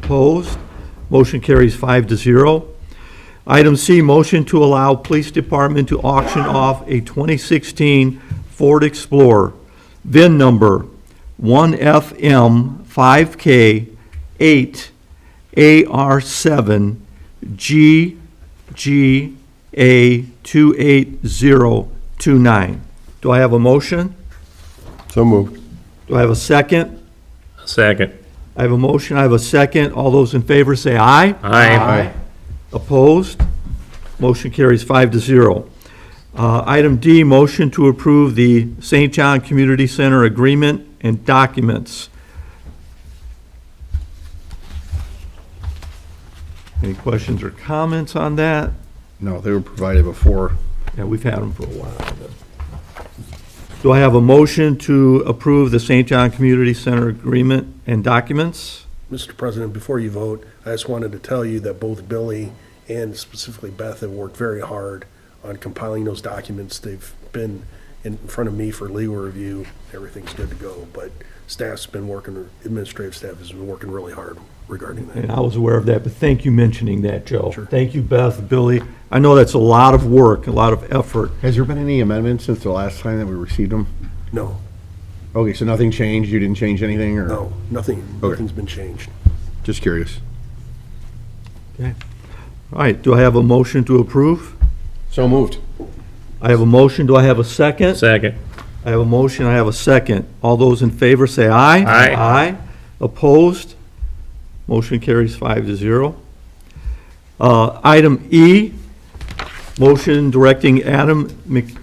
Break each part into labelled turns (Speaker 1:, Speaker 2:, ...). Speaker 1: Opposed? Motion carries five to zero. Item C, motion to allow Police Department to auction off a 2016 Ford Explorer, VIN number 1FM5K8AR7GGA28029. Do I have a motion?
Speaker 2: So moved.
Speaker 1: Do I have a second?
Speaker 3: Second.
Speaker 1: I have a motion, I have a second. All those in favor say aye.
Speaker 3: Aye.
Speaker 1: Opposed? Motion carries five to zero. Uh, Item D, motion to approve the St. John Community Center agreement and documents. Any questions or comments on that?
Speaker 2: No, they were provided before.
Speaker 1: Yeah, we've had them for a while. Do I have a motion to approve the St. John Community Center agreement and documents?
Speaker 4: Mr. President, before you vote, I just wanted to tell you that both Billy and specifically Beth have worked very hard on compiling those documents. They've been in front of me for legal review. Everything's good to go, but staff's been working, administrative staff has been working really hard regarding that.
Speaker 1: And I was aware of that, but thank you mentioning that, Joe. Thank you, Beth, Billy. I know that's a lot of work, a lot of effort.
Speaker 2: Has there been any amendments since the last time that we received them?
Speaker 4: No,
Speaker 2: Okay, so nothing changed? You didn't change anything, or?
Speaker 4: no, nothing,
Speaker 2: Okay.
Speaker 4: nothing's been changed.
Speaker 2: Just curious.
Speaker 1: All right, do I have a motion to approve?
Speaker 2: So moved.
Speaker 1: I have a motion, do I have a second?
Speaker 3: Second.
Speaker 1: I have a motion, I have a second. All those in favor say aye.
Speaker 3: Aye.
Speaker 1: Aye. Opposed? Motion carries five to zero. Uh, Item E, motion directing Adam Mc-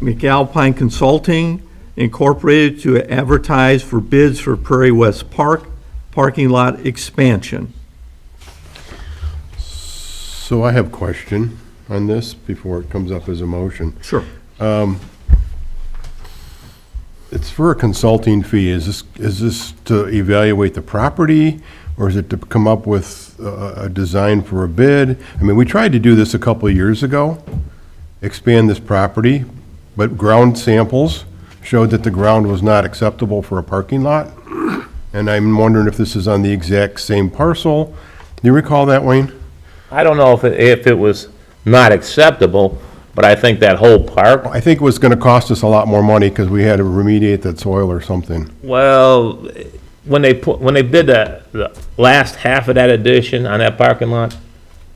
Speaker 1: McAlpine Consulting Incorporated to advertise for bids for Prairie West Park parking lot expansion.
Speaker 2: So I have a question on this before it comes up as a motion.
Speaker 1: Sure.
Speaker 2: It's for a consulting fee. Is this, is this to evaluate the property, or is it to come up with a, a design for a bid? I mean, we tried to do this a couple of years ago, expand this property, but ground samples showed that the ground was not acceptable for a parking lot. And I'm wondering if this is on the exact same parcel. Do you recall that, Wayne?
Speaker 3: I don't know if, it- if it was not acceptable, but I think that whole park,
Speaker 2: I think it was gonna cost us a lot more money because we had to remediate that soil or something.
Speaker 3: well, when they put, when they did the, the last half of that addition on that parking lot,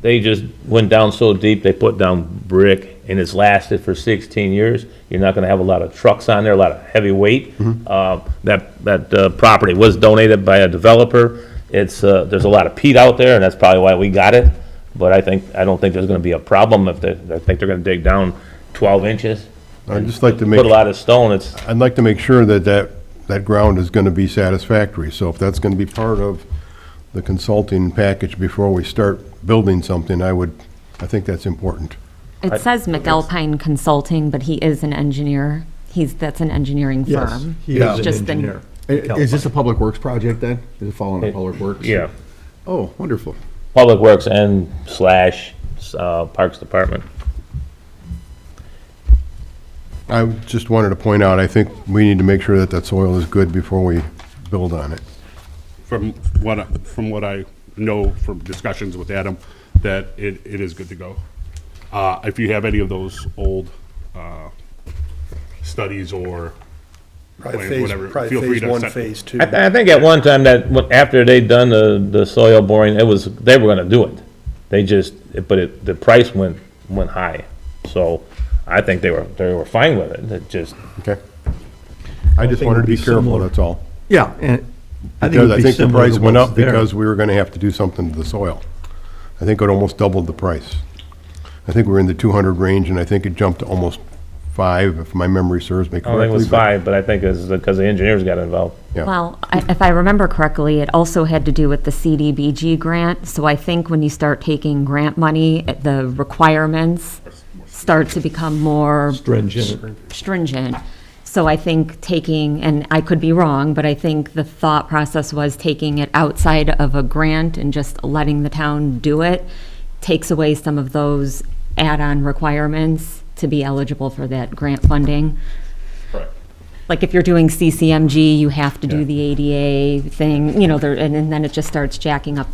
Speaker 3: they just went down so deep, they put down brick, and it's lasted for sixteen years. You're not gonna have a lot of trucks on there, a lot of heavy weight.
Speaker 2: Mm-hmm.
Speaker 3: Uh, that, that uh, property was donated by a developer. It's, uh, there's a lot of peat out there, and that's probably why we got it. But I think, I don't think there's gonna be a problem if they, I think they're gonna dig down twelve inches.
Speaker 2: I'd just like to make.
Speaker 3: Put a lot of stone, it's,
Speaker 2: I'd like to make sure that that, that ground is going to be satisfactory. So if that's going to be part of the consulting package before we start building something, I would, I think that's important.
Speaker 5: It says McAlpine Consulting, but he is an engineer. He's, that's an engineering
Speaker 1: Yes,
Speaker 5: firm.
Speaker 1: he is an
Speaker 5: Just been-
Speaker 1: engineer.
Speaker 2: Is this a public works project then? Is it following public works?
Speaker 3: yeah,
Speaker 2: Oh, wonderful.
Speaker 3: Public Works and slash, uh, Parks Department.
Speaker 2: I just wanted to point out, I think we need to make sure that that soil is good before we build on it.
Speaker 6: from what, I- from what I know from discussions with Adam, that it, it is good to go. Uh, if you have any of those old, uh, studies or
Speaker 4: Probably
Speaker 6: Wait,
Speaker 4: phase,
Speaker 6: whatever.
Speaker 4: probably
Speaker 6: Feel free
Speaker 4: phase
Speaker 6: to
Speaker 4: one,
Speaker 6: set-
Speaker 4: phase two.
Speaker 3: I, th- I think at one time that, when- after they'd done the, the soil boring, it was, they were gonna do it. They just, but it, the price went, went high. So I think they were, they were fine with it. It just,
Speaker 2: Okay? I just
Speaker 1: think it'd
Speaker 2: wanted to
Speaker 1: be
Speaker 2: be careful,
Speaker 1: similar.
Speaker 2: that's all.
Speaker 1: Yeah, and I think it
Speaker 2: Because
Speaker 1: would
Speaker 2: I
Speaker 1: be
Speaker 2: think the
Speaker 1: similar
Speaker 2: price
Speaker 1: to
Speaker 2: went
Speaker 1: what's
Speaker 2: up
Speaker 1: there.
Speaker 2: because we were going to have to do something to the soil. I think it almost doubled the price. I think we're in the 200 range, and I think it jumped to almost five, if my memory serves me
Speaker 3: Oh, I
Speaker 2: correctly.
Speaker 3: don't think it was
Speaker 2: but-
Speaker 3: five, but I think it's because the engineers got involved.
Speaker 2: Yeah.
Speaker 5: Well, I- if I remember correctly, it also had to do with the CDBG grant. So I think when you start taking grant money, it- the requirements start to become more
Speaker 1: Stringent.
Speaker 5: stringent. So I think taking, and I could be wrong, but I think the thought process was taking it outside of a grant and just letting the town do it takes away some of those add-on requirements to be eligible for that grant funding. Like if you're doing CCMG, you have to do the ADA thing, you know, there, and and then it just starts jacking up